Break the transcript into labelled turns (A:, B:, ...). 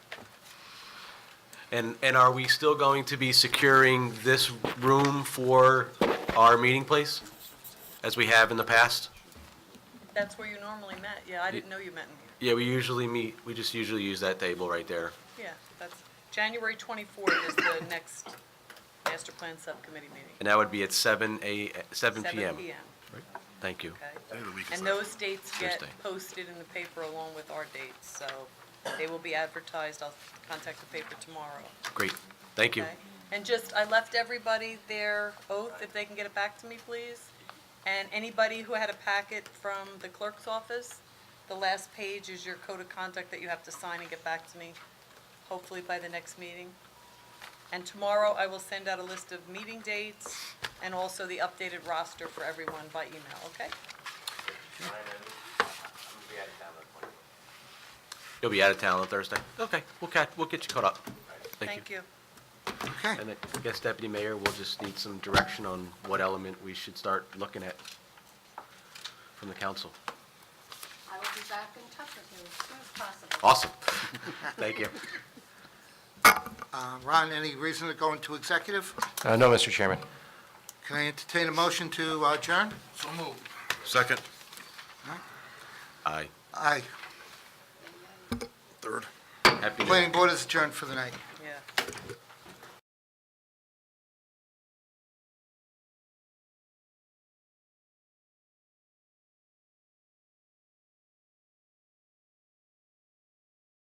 A: And, and are we still going to be securing this room for our meeting place, as we have in the past?
B: That's where you normally met, yeah, I didn't know you met in
A: Yeah, we usually meet, we just usually use that table right there.
B: here. Yeah, that's, January 24th is the next master plan subcommittee meeting.
A: And that would be at seven a, seven
B: 7
A: PM.
B: PM,
A: Thank you.
B: okay. And those dates get
A: Thursday.
B: posted in the paper along with our dates, so they will be advertised. I'll contact the paper tomorrow,
A: Great. Thank you.
B: okay? And just, I left everybody their oath, if they can get it back to me, please. And anybody who had a packet from the clerk's office, the last page is your code of conduct that you have to sign and get back to me, hopefully by the next meeting. And tomorrow, I will send out a list of meeting dates and also the updated roster for everyone by email, okay?
A: You'll be out of town on Thursday? Okay, we'll catch, we'll get you caught up.
B: Thank you.
C: Okay,
A: And I guess Deputy Mayor, we'll just need some direction on what element we should start looking at from the council.
D: I will be back in touch with you as soon as possible.
A: Awesome. Thank you.
C: Uh, Ron, any reason to go into executive?
E: Uh, No, Mr. Chairman.
C: Can I entertain a motion to uh, adjourn?
F: Second.
A: Aye.
C: Aye.
F: Third.
A: Happy New Year.
C: Planning board is adjourned for the night.